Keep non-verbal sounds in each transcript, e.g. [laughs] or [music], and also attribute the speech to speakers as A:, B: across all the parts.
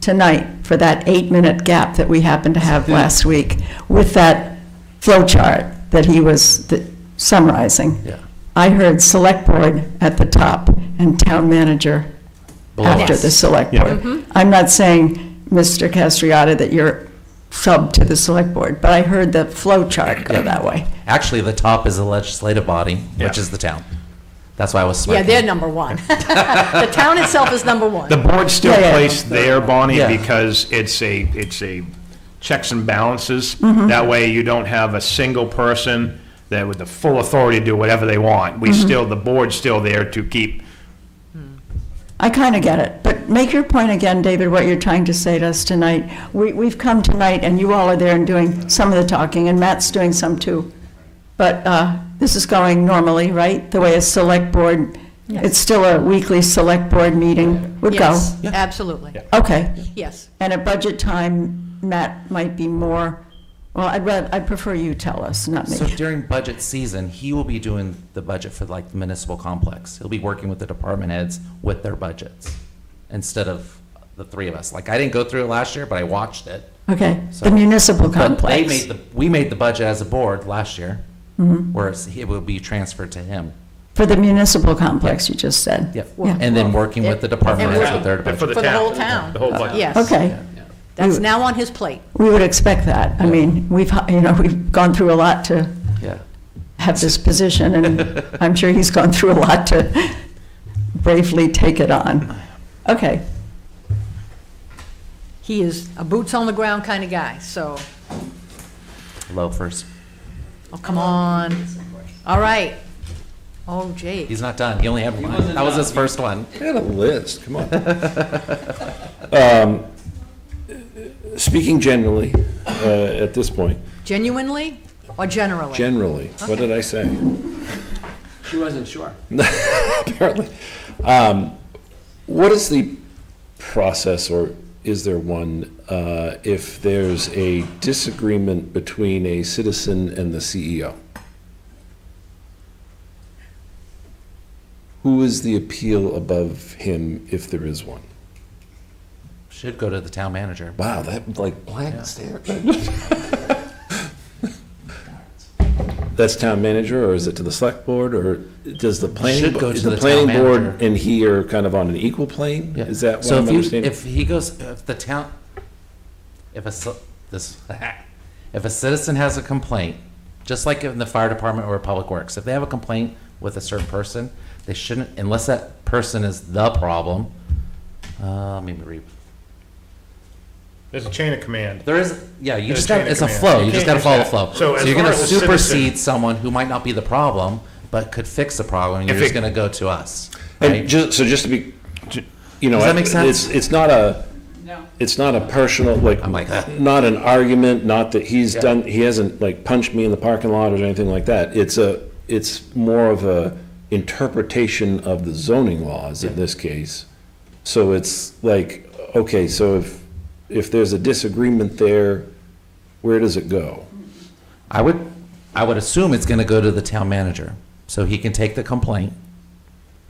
A: tonight for that eight-minute gap that we happened to have last week with that flow chart that he was th- summarizing.
B: Yeah.
A: I heard select board at the top and town manager
B: Below
A: after
B: us.
A: the select board. I'm not saying, Mr. Castriata, that you're sub to the select board, but I heard the flow chart go that way.
B: Actually, the top is the legislative body, which
C: Yeah.
B: is the town. That's why I was
D: Yeah,
B: smirking.
D: they're number one. [laughs] The town itself is number one.
C: The board's still
A: Yeah, yeah.
C: placed there, Bonnie,
B: Yeah.
C: because it's a, it's a checks and balances.
B: Mm-hmm.
C: That way you don't have a single person that with the full authority to do whatever they want.
B: Mm-hmm.
C: We still, the board's still there to keep,
A: I kind of get it, but make your point again, David, what you're trying to say to us tonight. We, we've come tonight, and you all are there and doing some of the talking, and Matt's doing some too. But uh, this is going normally, right? The way a select board, it's still a weekly select board meeting would go.
D: Yes, absolutely,
A: Okay.
D: yes.
A: And at budget time, Matt might be more, well, I'd rather, I'd prefer you tell us, not
B: So
A: me.
B: during budget season, he will be doing the budget for like the municipal complex. He'll be working with the department heads with their budgets instead of the three of us. Like, I didn't go through it last year, but I watched it.
A: Okay,
B: So-
A: the municipal
B: But they made
A: complex.
B: the, we made the budget as a board last year,
A: Mm-hmm.
B: whereas it will be transferred to him.
A: For the municipal complex, you just said.
B: Yep.
A: Yeah.
B: And then working with the department
D: And
B: heads with their
C: for the
B: budget.
D: For the
C: town.
D: whole town.
C: The whole budget.
D: Yes.
A: Okay.
D: That's now on his plate.
A: We would expect that. I mean, we've, you know, we've gone through a lot to
B: Yeah.
A: have this position, and I'm sure he's gone through a lot to bravely take it on. Okay,
D: He is a boots-on-the-ground kind of guy, so,
B: Loafers.
D: oh, come on. All right. Oh, gee.
B: He's not done. He only had one. That was his first one.
E: I had a list, come on. [laughs] Um, Speaking generally, uh, at this point,
D: Genuinely or generally?
E: generally, what did I say?
F: She wasn't sure.
E: [laughs] Apparently. Um, What is the process, or is there one, uh, if there's a disagreement between a citizen and the E CEO? Who is the appeal above him, if there is one?
B: Should go to the town manager.
E: Wow, that like blank
B: [laughs]
E: stare. That's town manager, or is it to the select board, or does the planning?
B: Should go
E: is
B: to the town
E: planning board
B: manager.
E: And he are kind of on an equal plane?
B: Yeah.
E: Is that what
B: so?
E: I'm
B: if you-
E: understanding?
B: If he goes, if the town, if a ci- this, [laughs] if a citizen has a complaint, just like in the fire department or public works, if they have a complaint with a certain person, they shouldn't, unless that person is the problem. Uh, let me read.
C: There's a chain of command.
B: There is, yeah, you
C: There's
B: just got,
C: chain of
B: it's a
C: command.
B: flow. You
C: You
B: just got
C: can't
B: to follow the
C: just-
B: flow.
C: so
B: So
C: as
B: you're going
C: far
B: to
C: as a citizen-
B: supersede someone who might not be the problem, but could fix the problem. You're
C: If
B: just
C: it-
B: going to go to us,
E: And
B: right?
E: ju, so just to be, ju- you know.
B: Does that
E: I-
B: make sense?
E: It's, it's not a, it's not a personal, like,
B: I'm like, "Ah."
E: not an argument, not that he's done, he hasn't like punched me in the parking lot or anything like that. It's a, it's more of a interpretation of the zoning laws in this case. So it's like, okay, so if, if there's a disagreement there, where does it go?
B: I would, I would assume it's going to go to the town manager, so he can take the complaint.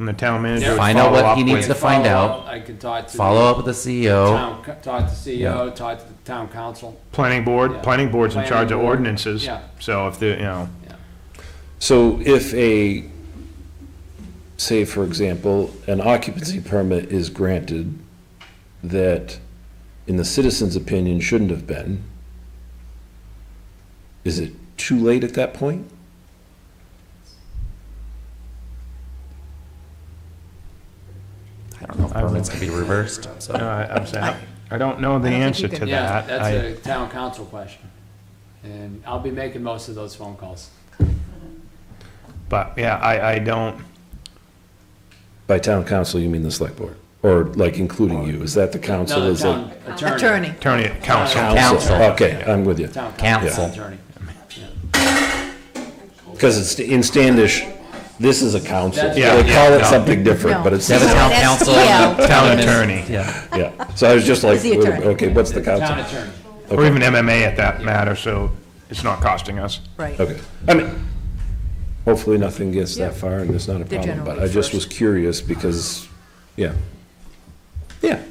C: And the town manager
F: Yeah.
C: would
B: Find out what
C: follow up
B: he needs
C: with.
B: to find
F: Follow
B: out.
F: I could talk to. the
B: Follow up with the E CEO.
F: town co- Talk to CEO, talk to the town council.
C: Planning board,
F: Yeah.
C: planning board's in
F: Planning
C: charge of
F: board.
C: ordinances.
F: Yeah.
C: So if the, you know,
E: So if a, say for example, an occupancy permit is granted that, in the citizen's opinion, shouldn't have been, is it too late at that point?
B: I don't know if permits can be reversed, so.
C: uh, I'm saying, I don't know the
D: I don't think you
C: answer
D: can-
C: to
F: Yeah,
C: that.
F: that's
C: I-
F: a town council question. And I'll be making most of those phone calls.
C: But yeah, I, I don't,
E: By town council, you mean the select board? Or like including you? Is that the council?
F: No, the
E: Is it-
F: town attorney.
D: Attorney.
C: attorney, council.
E: Council,
B: Council.
E: okay, I'm with you.
F: Town
B: Council.
F: council attorney.
E: Because it's, in Standish, this is a council.
F: That's-
C: Yeah,
E: They call
C: yeah,
E: it
C: no.
E: something different,
D: No.
E: but it's,
B: They have a town
D: That's
B: council,
D: the
B: and town admin-
C: attorney.
B: Yeah,
E: yeah. So I was just like,
D: the attorney.
E: okay, what's the council?
F: Town attorney.
C: Or even MMA at that matter, so it's not costing us.
D: Right.
E: Okay. I mean, hopefully nothing gets that far and there's not a
D: They're
E: problem, but
D: generally
E: I just
D: first.
E: was curious because, yeah. Yeah.